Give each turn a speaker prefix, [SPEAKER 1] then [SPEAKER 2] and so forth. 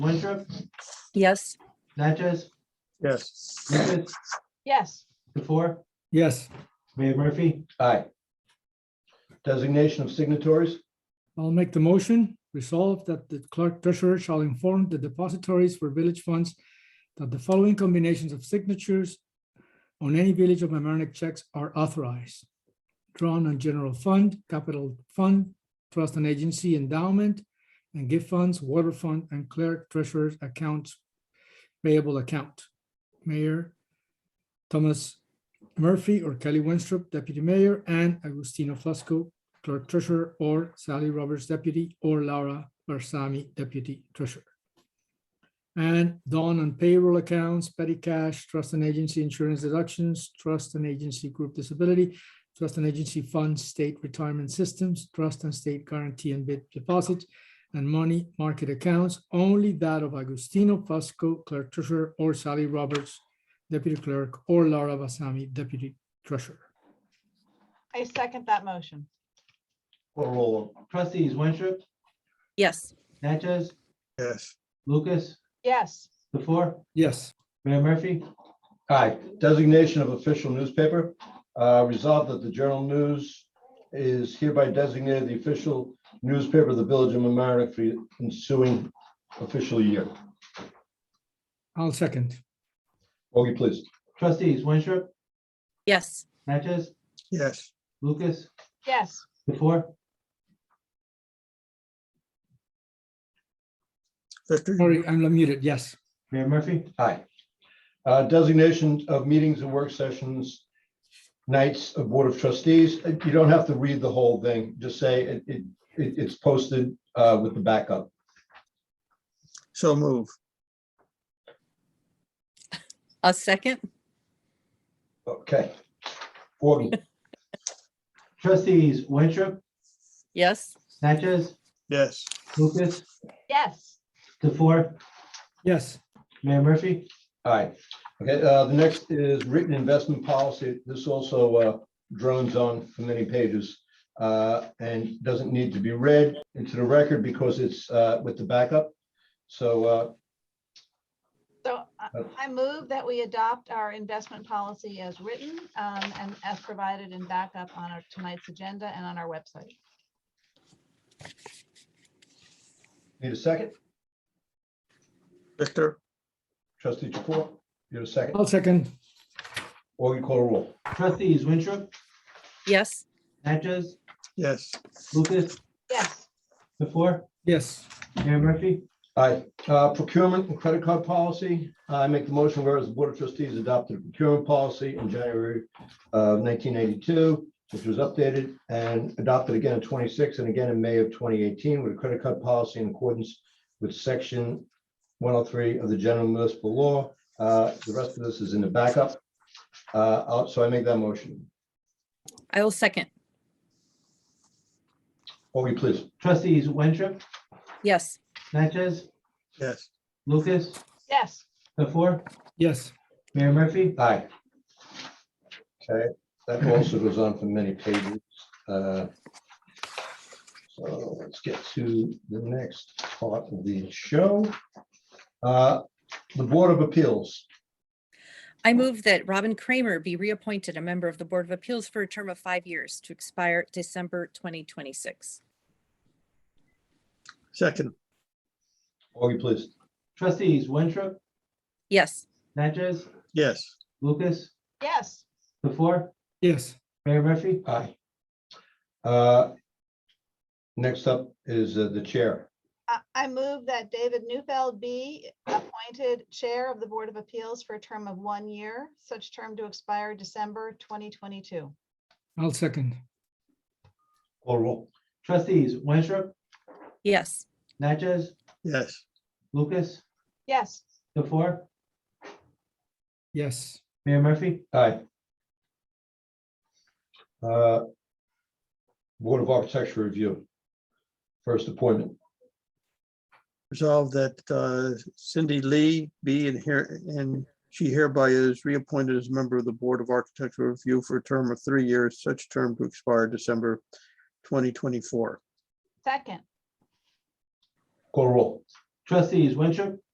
[SPEAKER 1] Winthrop,
[SPEAKER 2] Yes,
[SPEAKER 1] Natchez,
[SPEAKER 3] Yes.
[SPEAKER 1] Lucas,
[SPEAKER 4] Yes,
[SPEAKER 1] DeFour,
[SPEAKER 3] Yes.
[SPEAKER 1] Mayor Murphy.
[SPEAKER 5] Aye. Designation of signatories,
[SPEAKER 3] I'll make the motion. Resolve that the clerk treasurer shall inform the depositories for village funds that the following combinations of signatures on any Village of Amerenik checks are authorized. Drawn on general fund, capital fund, trust and agency endowment, and gift funds, water fund, and clerk treasurer's accounts payable account. Mayor Thomas Murphy or Kelly Winstrup, deputy mayor, and Agustino Fusco, clerk treasurer, or Sally Roberts deputy, or Laura Barsami deputy treasurer. And Dawn on payroll accounts, petty cash, trust and agency insurance deductions, trust and agency group disability, trust and agency funds, state retirement systems, trust and state guarantee and bid deposits, and money market accounts, only that of Agustino Fusco, clerk treasurer, or Sally Roberts deputy clerk, or Laura Barsami deputy treasurer.
[SPEAKER 4] I second that motion.
[SPEAKER 5] call roll.
[SPEAKER 1] Trustees Winthrop,
[SPEAKER 2] yes,
[SPEAKER 1] Natchez,
[SPEAKER 6] Yes,
[SPEAKER 1] Lucas,
[SPEAKER 4] Yes,
[SPEAKER 1] DeFour,
[SPEAKER 3] Yes.
[SPEAKER 1] Mayor Murphy.
[SPEAKER 5] Aye. Designation of official newspaper, Uh, resolved that the Journal News is hereby designated the official newspaper of the Village of Mamaroneck for the ensuing official year.
[SPEAKER 3] I'll second.
[SPEAKER 5] Augie, please.
[SPEAKER 1] Trustees Winthrop,
[SPEAKER 2] yes,
[SPEAKER 1] Natchez,
[SPEAKER 6] yes,
[SPEAKER 1] Lucas,
[SPEAKER 4] yes,
[SPEAKER 1] DeFour,
[SPEAKER 6] Victor,
[SPEAKER 3] Sorry, I'm muted. Yes,
[SPEAKER 1] Mayor Murphy.
[SPEAKER 5] Aye. Uh, Designation of meetings and work sessions, nights of Board of Trustees. Uh, You don't have to read the whole thing. Just say it, it, it- it's posted uh, with the backup.
[SPEAKER 6] so move.
[SPEAKER 2] a second,
[SPEAKER 5] Okay. Augie,
[SPEAKER 1] Trustees Winthrop,
[SPEAKER 2] yes,
[SPEAKER 1] Natchez,
[SPEAKER 6] Yes,
[SPEAKER 1] Lucas,
[SPEAKER 4] yes,
[SPEAKER 1] DeFour,
[SPEAKER 3] yes,
[SPEAKER 1] Mayor Murphy.
[SPEAKER 5] All right. Okay, uh, the next is written investment policy. This also uh, drones on for many pages uh, and doesn't need to be read into the record because it's uh, with the backup. So uh,
[SPEAKER 4] so I- I move that we adopt our investment policy as written um, and as provided in backup on our tonight's agenda and on our website.
[SPEAKER 5] need a second?
[SPEAKER 6] Victor,
[SPEAKER 5] Trustee Jafor, you have a second?
[SPEAKER 3] I'll second.
[SPEAKER 5] Augie, call a roll.
[SPEAKER 1] Trustees Winthrop,
[SPEAKER 2] yes,
[SPEAKER 1] Natchez,
[SPEAKER 6] yes,
[SPEAKER 1] Lucas,
[SPEAKER 4] Yes,
[SPEAKER 1] DeFour,
[SPEAKER 3] Yes,
[SPEAKER 1] Mayor Murphy.
[SPEAKER 5] Aye. Uh, Procurement and credit card policy. I make the motion whereas the Board of Trustees adopted a procurement policy in January of 1982, which was updated and adopted again in 26 and again in May of 2018 with a credit card policy in accordance with Section 103 of the General Municipal Law. Uh, The rest of this is in the backup. Uh, I'll- So I make that motion.
[SPEAKER 2] I will second,
[SPEAKER 5] Augie, please.
[SPEAKER 1] Trustees Winthrop,
[SPEAKER 2] yes,
[SPEAKER 1] Natchez,
[SPEAKER 6] yes,
[SPEAKER 1] Lucas,
[SPEAKER 4] yes,
[SPEAKER 1] DeFour,
[SPEAKER 3] yes,
[SPEAKER 1] Mayor Murphy.
[SPEAKER 5] Aye. Okay, that also goes on for many pages. uh, So let's get to the next part of the show. Uh, The Board of Appeals,
[SPEAKER 2] I move that Robin Kramer be reappointed a member of the Board of Appeals for a term of five years to expire December twenty twenty-six.
[SPEAKER 6] second,
[SPEAKER 5] Augie, please.
[SPEAKER 1] Trustees Winthrop,
[SPEAKER 2] Yes,
[SPEAKER 1] Natchez,
[SPEAKER 6] yes,
[SPEAKER 1] Lucas,
[SPEAKER 4] yes,
[SPEAKER 1] DeFour,
[SPEAKER 3] yes,
[SPEAKER 1] Mayor Murphy.
[SPEAKER 5] Aye. Uh, Next up is uh, the Chair.
[SPEAKER 4] I- I move that David Newfeld be appointed Chair of the Board of Appeals for a term of one year, such term to expire December 2022.
[SPEAKER 3] I'll second.
[SPEAKER 5] Call roll.
[SPEAKER 1] Trustees Winthrop,
[SPEAKER 2] yes,
[SPEAKER 1] Natchez,
[SPEAKER 6] yes,
[SPEAKER 1] Lucas,
[SPEAKER 4] Yes,
[SPEAKER 1] DeFour,
[SPEAKER 3] Yes,
[SPEAKER 1] Mayor Murphy.
[SPEAKER 5] Aye. Uh, Board of Architecture Review. First appointment.
[SPEAKER 6] resolve that uh, Cindy Lee be in here, and she hereby is reappointed as a member of the Board of Architectural Review for a term of three years, such term to expire December twenty twenty-four.
[SPEAKER 4] second,
[SPEAKER 5] Call roll.
[SPEAKER 1] Trustees Winthrop,